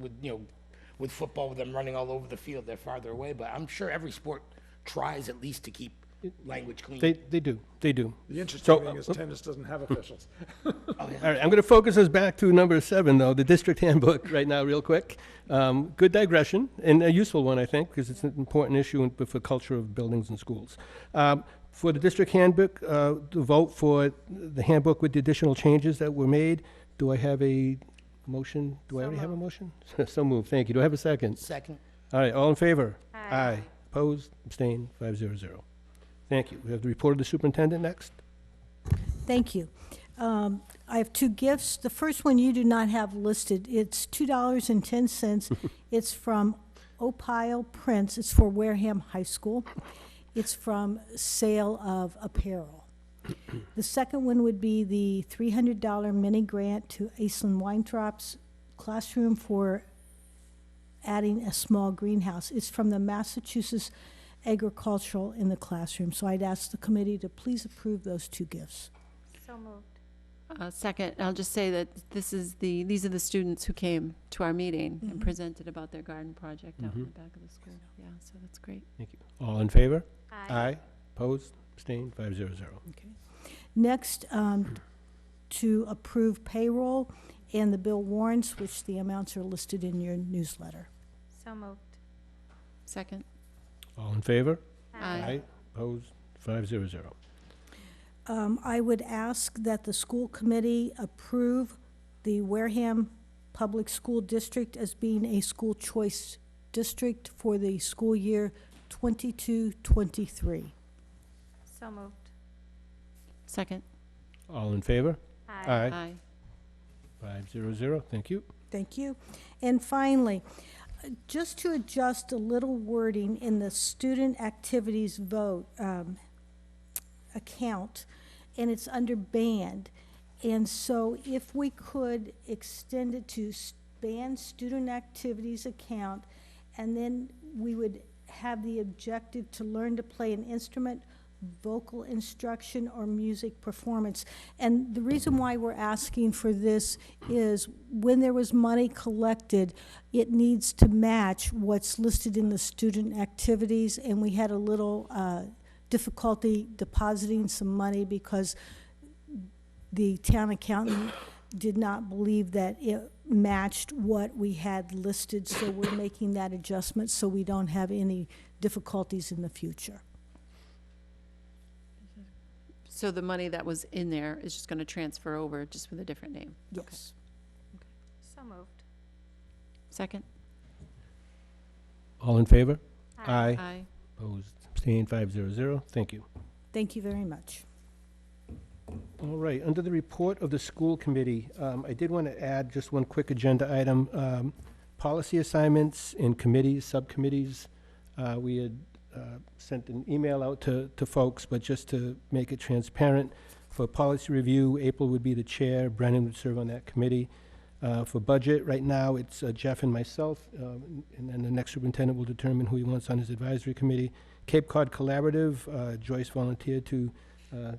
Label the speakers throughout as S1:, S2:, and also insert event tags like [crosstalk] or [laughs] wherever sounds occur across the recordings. S1: with, you know, with football, with them running all over the field, they're farther away, but I'm sure every sport tries at least to keep language clean.
S2: They, they do, they do.
S3: The
S2: So,
S3: interesting thing is
S2: uh,
S3: tennis doesn't have officials.
S2: [laughs] All right, I'm going to focus us back to number seven, though, the district [laughs] handbook, right now, real quick. Um, good digression, and a useful one, I think, because it's an important issue in- for culture of buildings and schools. Um, for the district handbook, uh, to vote for the handbook with the additional changes that were made, do I have a motion? Do I already have a motion? [laughs] so moved, thank you. Do I have a second?
S1: Second,
S2: All right, all in favor? Aye. Opposed, abstained, 500. Thank you. We have the report of the superintendent next.
S4: Thank you. Um, I have two gifts. The first one you do not have listed. It's $2.10. It's from Opile Prince. It's for Wareham High School. It's from sale of apparel. The second one would be the $300 mini grant to Aislinn Weintraub's classroom for adding a small greenhouse. It's from the Massachusetts Agricultural in the Classroom. So I'd ask the committee to please approve those two gifts.
S5: So moved.
S6: Uh, Second, I'll just say that this is the, these are the students who came to our meeting and presented about their garden project out in the back of the school. Yeah, so that's great.
S2: Thank you. All in favor?
S5: Aye.
S2: Aye. Opposed? Abstained? Five zero zero.
S4: Next, um, to approve payroll and the bill warrants, which the amounts are listed in your newsletter.
S5: So moved.
S6: Second?
S2: All in favor?
S6: Aye.
S2: Opposed? Five zero zero.
S4: Um, I would ask that the school committee approve the Wareham Public School District as being a school choice district for the school year 22-23.
S5: So moved.
S6: Second?
S2: All in favor?
S6: Aye.
S2: Five zero zero. Thank you.
S4: Thank you. And finally, uh, just to adjust a little wording in the student activities vote um, account, and it's under band. And so if we could extend it to s- band student activities account, and then we would have the objective to learn to play an instrument, vocal instruction, or music performance. And the reason why we're asking for this is when there was money collected, it needs to match what's listed in the student activities, and we had a little uh, difficulty depositing some money because the town accountant did not believe that it matched what we had listed, so we're making that adjustment so we don't have any difficulties in the future.
S6: So the money that was in there is just going to transfer over, just with a different name.
S4: Yes.
S5: So moved.
S6: Second?
S2: All in favor?
S5: Aye.
S6: Aye.
S2: Opposed? Abstained? Five zero zero. Thank you.
S4: Thank you very much.
S2: All right, under the report of the school committee, um, I did want to add just one quick agenda item. Um, Policy assignments in committees, subcommittees. Uh, We had uh, sent an email out to, to folks, but just to make it transparent, for policy review, April would be the chair, Brennan would serve on that committee. Uh, For budget, right now, it's uh, Jeff and myself, um, and then the next superintendent will determine who he wants on his advisory committee. Cape Cod Collaborative, uh, Joyce volunteered to uh,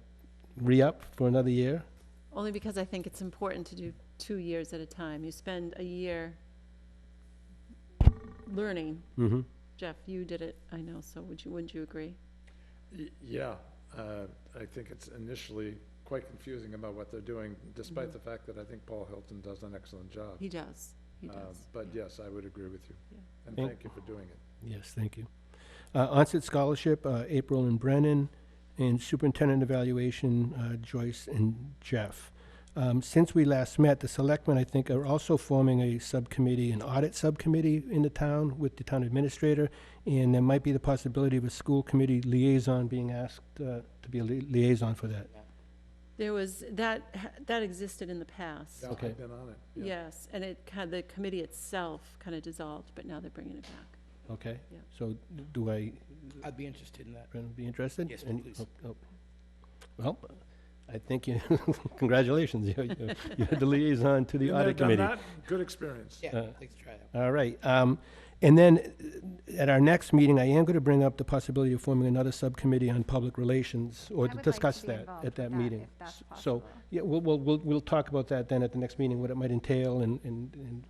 S2: re-up for another year.
S6: Only because I think it's important to do two years at a time. You spend a year learning.
S2: Mm-hmm.
S6: Jeff, you did it, I know, so would you, wouldn't you agree?
S3: Y- Yeah, uh, I think it's initially quite confusing about what they're doing, despite the fact that I think Paul Hilton does an excellent job.
S6: He does. He
S3: Uh,
S6: does.
S3: But
S6: yeah.
S3: yes, I would agree with you.
S6: Yeah.
S3: And
S2: Thank-
S3: thank you for doing it.
S2: Yes, thank you. Uh, onset scholarship, uh, April and Brennan, and superintendent evaluation, uh, Joyce and Jeff. Um, since we last met, the selectmen, I think, are also forming a subcommittee, an audit subcommittee in the town with the town administrator, and there might be the possibility of a school committee liaison being asked uh, to be a li- liaison for that.
S6: There was, that, ha- that existed in the past.
S3: Yeah,
S2: Okay.
S3: I've been on it.
S6: Yes, and it kind, the committee itself kind of dissolved, but now they're bringing it back.
S2: Okay?
S6: Yeah.
S2: So do I
S1: I'd be interested in that.
S2: Brennan be interested?
S1: Yes,
S2: And-
S1: please.
S2: oh, oh. Well, I think you, [laughs] congratulations, you- you- you're the liaison to the
S3: Been there,
S2: audit
S3: done
S2: committee.
S3: that. Good experience.
S1: Yeah,
S2: Uh,
S1: let's try that.
S2: All right, um, and then uh, at our next meeting, I am going to bring up the possibility of forming another subcommittee on public relations, or
S5: I would like to
S2: discuss
S5: be
S2: that
S5: involved
S2: at
S5: with
S2: that
S5: that,
S2: meeting.
S5: if that's
S2: S- So,
S5: possible.
S2: yeah, we'll, we'll, we'll, we'll talk about that then at the next meeting, what it might entail, and, and, and